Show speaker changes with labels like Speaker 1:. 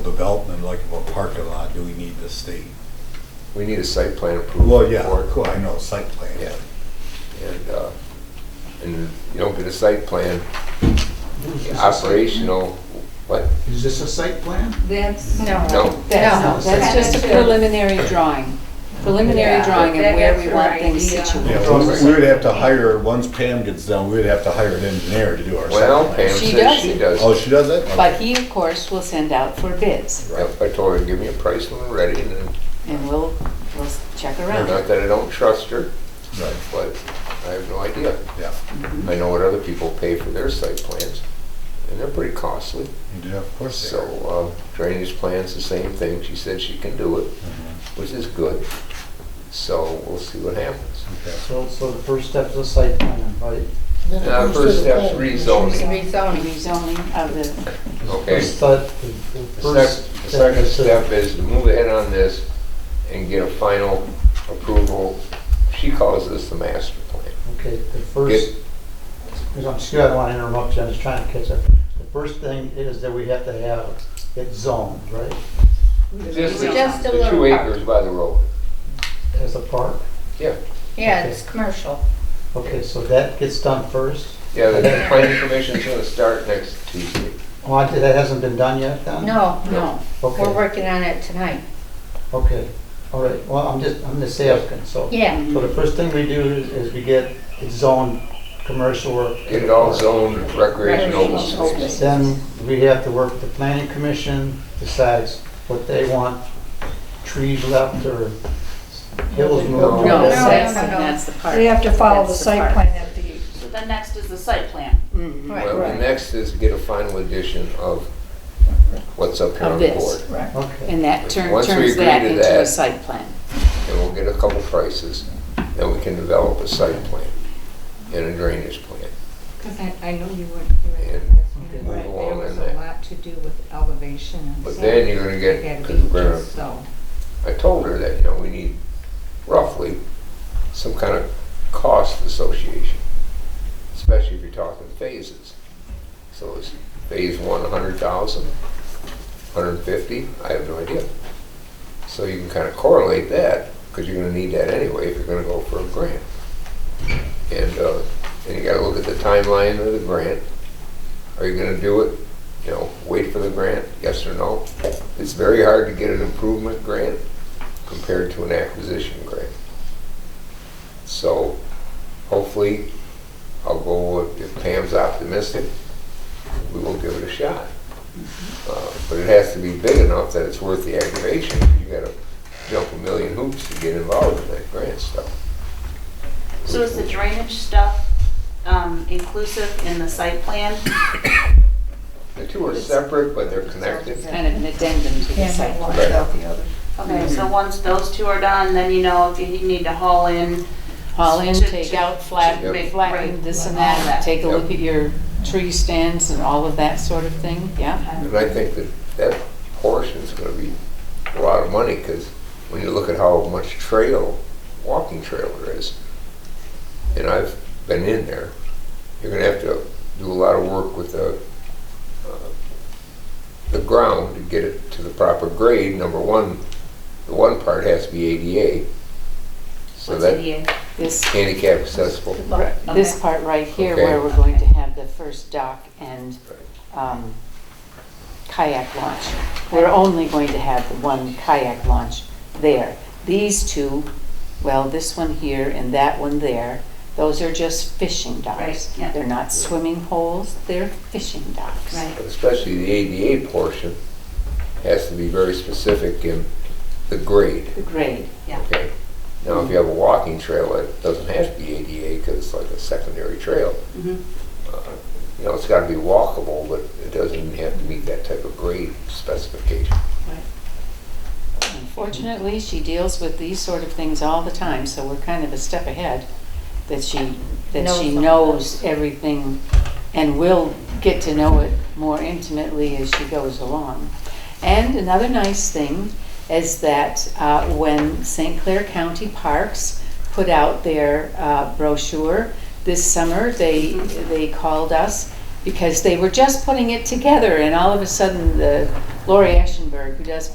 Speaker 1: development, like of a parking lot, do we need the state?
Speaker 2: We need a site plan approval.
Speaker 1: Well, yeah,
Speaker 2: for it.
Speaker 1: cool, I know, site plan.
Speaker 2: Yeah. And, uh, and you don't get a site plan
Speaker 3: Is this a-
Speaker 2: operational, what?
Speaker 3: Is this a site plan?
Speaker 4: That's.
Speaker 2: No.
Speaker 5: No,
Speaker 4: That's,
Speaker 5: that's just a preliminary drawing, preliminary
Speaker 4: Yeah,
Speaker 5: drawing of
Speaker 4: that-
Speaker 5: where
Speaker 4: that's
Speaker 5: we
Speaker 4: your
Speaker 5: want things
Speaker 4: idea.
Speaker 5: situated.
Speaker 1: Yeah, we- we would have to hire, once Pam gets done, we would have to hire an engineer to do our site
Speaker 2: Well,
Speaker 1: plan.
Speaker 2: Pam
Speaker 5: She
Speaker 2: says
Speaker 5: does
Speaker 2: she
Speaker 5: it.
Speaker 2: does.
Speaker 1: Oh, she does it?
Speaker 5: But he, of course, will send out for bids,
Speaker 2: Yep, I told her, give me a price when we're ready, and then-
Speaker 5: and we'll, we'll check around.
Speaker 2: not that I don't trust her,
Speaker 1: Right,
Speaker 2: but I have no idea.
Speaker 1: yeah,
Speaker 2: I know what other people pay for their site plans, and they're pretty costly.
Speaker 1: yeah, of course they are.
Speaker 2: So uh, drainage plan's the same thing. She said she can do it,
Speaker 1: Mhm.
Speaker 2: which is good. So we'll see what happens.
Speaker 1: Okay.
Speaker 6: So, so the first step is a site plan, right?
Speaker 2: Now, the Uh, first step's rezoning,
Speaker 4: Rezoning.
Speaker 5: Rezoning of the,
Speaker 2: okay?
Speaker 6: First step-
Speaker 2: The
Speaker 6: first
Speaker 2: sec- the
Speaker 6: step
Speaker 2: second
Speaker 6: is to-
Speaker 2: step is to move ahead on this and get a final approval. She calls this the master plan.
Speaker 6: Okay, the
Speaker 2: Get-
Speaker 6: first, I'm, excuse, I don't want to interrupt you, I'm just trying to catch up. The first thing is that we have to have it zoned, right,
Speaker 2: Just
Speaker 4: Just a
Speaker 2: the two
Speaker 4: little part.
Speaker 2: acres by the road.
Speaker 6: as a park?
Speaker 2: Yeah,
Speaker 4: Yeah, it's commercial.
Speaker 6: Okay, so that gets done first?
Speaker 2: yeah, the planning commission's gonna start next Tuesday.
Speaker 6: Oh, I- that hasn't been done yet, then?
Speaker 4: No, no, we're
Speaker 6: Okay,
Speaker 4: working on it tonight.
Speaker 6: okay, all right, well, I'm just, I'm just asking, so.
Speaker 4: Yeah,
Speaker 6: So the first thing we do is- is we get it zoned commercial or.
Speaker 2: Get it all zoned recreational open
Speaker 4: Recreational open
Speaker 2: space.
Speaker 4: space.
Speaker 6: Then we have to work with the planning commission, decides what they want, trees left or hills
Speaker 2: No.
Speaker 6: moved.
Speaker 5: no,
Speaker 4: no,
Speaker 5: that's,
Speaker 4: no, no.
Speaker 5: that's the part.
Speaker 7: They have to follow the
Speaker 5: That's
Speaker 7: site
Speaker 5: part.
Speaker 7: plan that the,
Speaker 8: So then next is the site plan.
Speaker 5: Mhm.
Speaker 4: right,
Speaker 2: Well, the next is get a final edition of what's up here
Speaker 5: Of
Speaker 2: on the
Speaker 5: this.
Speaker 2: board.
Speaker 4: right.
Speaker 6: Okay,
Speaker 5: And that turn-
Speaker 2: Once we
Speaker 5: turns
Speaker 2: agree
Speaker 5: that
Speaker 2: to
Speaker 5: into a
Speaker 2: that-
Speaker 5: site plan.
Speaker 2: And we'll get a couple prices, then we can develop a site plan and a drainage plan.
Speaker 4: Because I, I know you were,
Speaker 2: were And
Speaker 6: Okay.
Speaker 2: move along in that.
Speaker 4: lot to do with elevation and.
Speaker 2: But then you're gonna get, because we're gonna,
Speaker 4: So.
Speaker 2: I told her that, you know, we need roughly some kind of cost association, especially if you're talking phases. So is phase one a hundred thousand, hundred and fifty? I have no idea. So you can kind of correlate that, because you're gonna need that anyway if you're gonna go for a grant. And, uh, and you gotta look at the timeline of the grant. Are you gonna do it, you know, wait for the grant, yes or no? It's very hard to get an improvement grant compared to an acquisition grant. So hopefully, I'll go, with- if Pam's optimistic, we will give it a shot. Uh, But it has to be big enough that it's worth the aggravation. You gotta jump a million hoops to get involved in that grant stuff.
Speaker 8: So is the drainage stuff um, inclusive in the site plan?
Speaker 2: The two are separate, but they're connected.
Speaker 5: Kind of an addendum to the
Speaker 4: Can't
Speaker 5: site
Speaker 4: have one
Speaker 5: plan.
Speaker 4: without the other.
Speaker 8: Okay,
Speaker 2: Mhm.
Speaker 8: so once those two are done, then you know if you need to haul in.
Speaker 5: Haul in,
Speaker 8: To-
Speaker 5: take
Speaker 8: to-
Speaker 5: out, flat,
Speaker 8: to make-
Speaker 5: flatten
Speaker 8: right,
Speaker 5: this and
Speaker 8: all
Speaker 5: that,
Speaker 8: that.
Speaker 5: take a
Speaker 2: Yep.
Speaker 5: look at your tree stands and all of that sort of thing, yeah.
Speaker 2: And I think that that portion's gonna be a lot of money, because when you look at how much trail, walking trail there is, and I've been in there, you're gonna have to do a lot of work with the, uh, the ground to get it to the proper grade. Number one, the one part has to be ADA, so
Speaker 8: What's
Speaker 2: that
Speaker 8: ADA?
Speaker 5: This,
Speaker 2: handicap accessible.
Speaker 5: this
Speaker 8: Okay.
Speaker 5: part right here
Speaker 2: Okay.
Speaker 5: where we're going to have the first dock and um, kayak launch. We're only going to have the one kayak launch there. These two, well, this one here and that one there, those are just fishing docks.
Speaker 8: Right, yeah.
Speaker 5: They're not swimming holes, they're fishing docks.
Speaker 8: Right.
Speaker 2: Especially the ADA portion has to be very specific in the grade.
Speaker 5: The grade,
Speaker 2: Okay. Now, if you have a walking trail, it doesn't have to be ADA because it's like a secondary trail.
Speaker 8: Mhm.
Speaker 2: Uh, You know, it's got to be walkable, but it doesn't even have to meet that type of grade specification.
Speaker 5: Unfortunately, she deals with these sort of things all the time, so we're kind of a step ahead, that she, that
Speaker 4: Knows
Speaker 5: she
Speaker 4: all
Speaker 5: knows everything and will get to know it more intimately as she goes along. And another nice thing is that uh, when St. Clair County Parks put out their uh, brochure this summer, they, they called us because they were just putting it together and all of a sudden the Lori Ashenberg, who does